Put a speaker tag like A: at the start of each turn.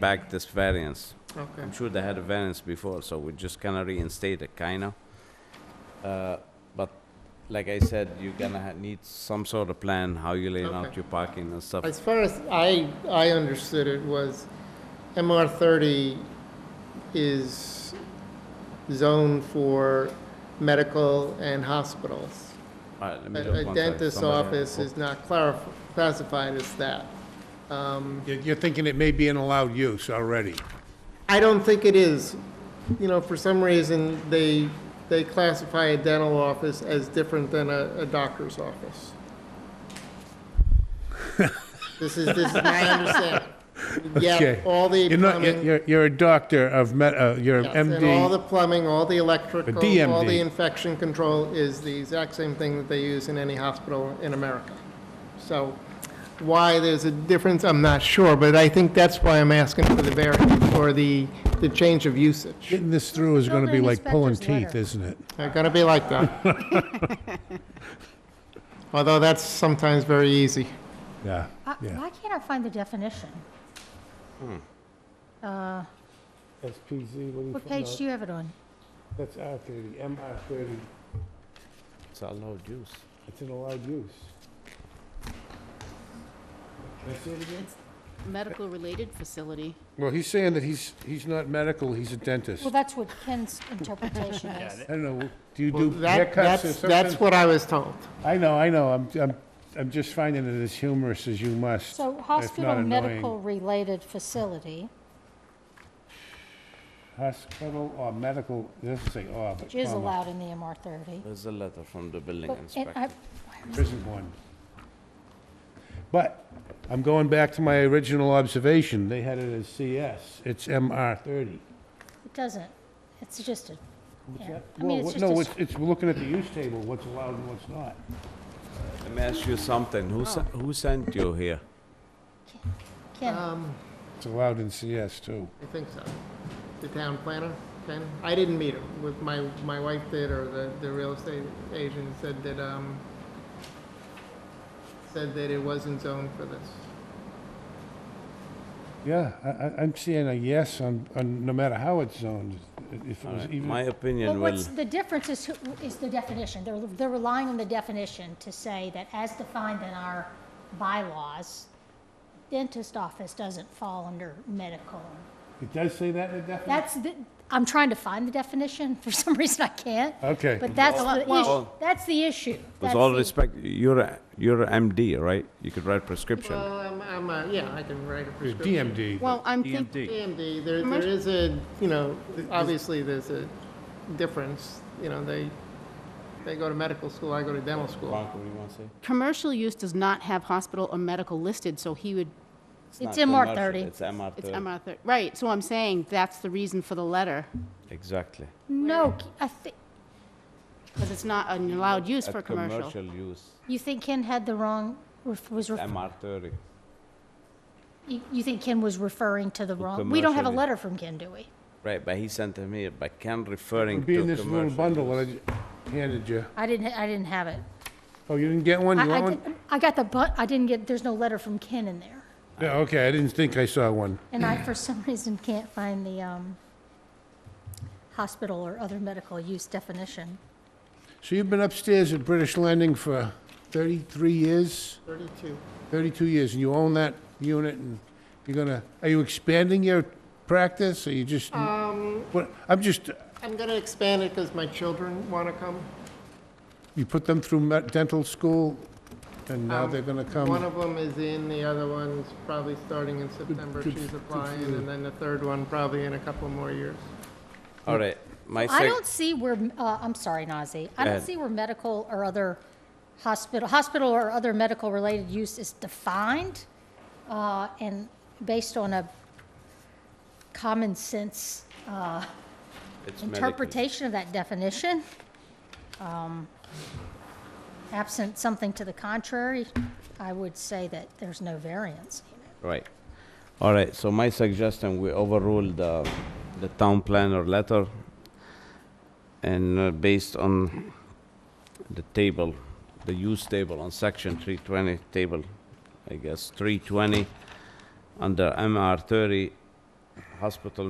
A: back this variance.
B: Okay.
A: I'm sure they had a variance before, so we just kinda reinstate it, kinda. Uh, But like I said, you're gonna ha- need some sort of plan, how you lay out
B: Okay.
A: your parking and stuff.
B: As far as I, I understood it was MR thirty is zoned for medical and hospitals.
A: All right, let me
B: A
A: just
B: a
A: one sec,
B: dentist's
A: somebody-
B: office is not clarif- classified as that. Um,
C: You're you're thinking it may be an allowed use already.
B: I don't think it is. You know, for some reason, they, they classify a dental office as different than a, a doctor's office. This is, this is my understanding.
C: Okay.
B: Yeah, all the
C: You're not, you're-
B: plumbing,
C: you're, you're a doctor of, med- uh, you're an
B: yes, and all the
C: MD.
B: plumbing, all the electrical, all
C: DMD.
B: the infection control is the exact same thing that they use in any hospital in America. So why there's a difference, I'm not sure, but I think that's why I'm asking for the variance, or the, the change of usage.
C: Getting this through is gonna be
D: Building
C: like pulling
D: inspector's
C: teeth,
D: letter.
C: isn't it?
B: They're gonna be like that. Although that's sometimes very easy.
C: Yeah,
D: Uh,
C: yeah.
D: Why can't I find the definition? Uh,
C: SPZ,
D: What page do you have it on?
C: That's R thirty, MR thirty,
A: It's allowed use.
C: it's an allowed use.
E: medical related facility.
C: Well, he's saying that he's, he's not medical, he's a dentist.
D: Well, that's what Ken's interpretation is.
C: I don't know, do you
B: Well,
C: do
B: that-
C: haircuts or
B: That's, that's
C: something?
B: what I was told.
C: I know, I know, I'm, I'm, I'm just finding it as humorous as you must.
D: So
C: not
D: hospital
C: annoying.
D: medical-related facility,
C: Hospital or medical, it doesn't say or, oh, but
D: which is
C: comma,
D: allowed in the MR 30.
A: There's a letter from the building
D: But- and
A: inspector.
D: I-
C: There isn't one. But I'm going back to my original observation, they had it as CS, it's MR thirty.
D: It doesn't, it's just a, yeah. I
C: Well,
D: mean, it's
C: what-
D: just
C: No,
D: a
C: it's, it's looking at the use table, what's allowed and what's not.
A: Let me ask you something, who sen- who sent you here?
D: Ken.
B: Um,
C: It's allowed in CS too.
B: I think so. The town planner, Ken? I didn't meet him, with my, my wife did, or the, the real estate agent said that, um, said that it wasn't zoned for this.
C: Yeah, I, I, I'm seeing a yes on, on, no matter how it's zoned, if it
A: All
C: was
A: right, My
C: even,
D: But
A: opinion will,
D: what's, the difference is, who- is the definition. They're, they're relying on the definition to say that as defined in our bylaws, dentist office doesn't fall under medical.
C: it does say that in the definition?
D: That's the, I'm trying to find the definition. For some reason, I can't.
C: Okay.
D: But that's the issue.
A: well-
D: That's the issue.
A: with
D: That's
A: all
D: the-
A: respect, you're, a- you're a MD, right? You could write prescription.
B: Well, I'm, I'm, uh, yeah, I can write a
C: There's
B: prescription.
C: DMD.
E: Well, I'm thinking,
A: DMD.
B: DMD, there, there is a, you know, obviously there's a difference, you know, they, they go to medical school, I go to dental school.
A: Bronco, what do you wanna say?
E: commercial use does not have hospital or medical listed, so he would,
D: It's
A: not
D: MR
A: commercial,
D: 30.
A: It's MR
E: it's
A: thirty,
E: MR, thir- right, so I'm saying that's the reason for the letter,
A: exactly.
D: No, I think,
E: because it's not an allowed use for
A: At
E: commercial.
A: Commercial use,
D: you think Ken had the wrong, ref- was, ref-
A: MR thirty.
D: you you think Ken was referring to the
A: For
D: wrong? We don't have a
A: commercial, yeah.
D: letter from Ken, do we?
A: Right, but he sent him here, but Ken referring to
C: Be in
A: commercial.
C: this little bundle that I ju- handed you.
D: I didn't, I didn't have it.
C: Oh, you didn't get one? You
D: I, I,
C: want one?
D: did- I got the but I didn't get. There's no letter from Ken in there,
C: Yeah, okay, I didn't think I saw one.
D: and I for some reason can't find the um, hospital or other medical use definition.
C: So you've been upstairs at British Lending for 33 years,
B: Thirty-two.
C: 32 years, and you own that unit, and you're gonna, are you expanding your practice, or you just?
B: Um.
C: What, I'm just,
B: I'm gonna expand it because my children wanna come.
C: you put them through me- dental school, and now they're gonna
B: Um, One
C: come?
B: of them is in, the other one's probably starting in September,
C: good- good
B: she's
C: for
B: applying,
C: you.
B: and then the third one probably in a couple more years.
A: All right, my
D: I
A: sec,
D: don't see where. Uh, I'm sorry, Nazi. I don't
A: ahead.
D: see where medical or other hospital, hospital or other medical related use is defined, uh, and based on a common sense uh,
A: it's medical.
D: interpretation of that definition. Um, Absent something to the contrary, I would say that there's no variance.
A: Right. All right, so my suggestion, we overrule the, the town planner letter and uh, based on the table, the use table on section 320 table, I guess, 320, under MR 30, hospital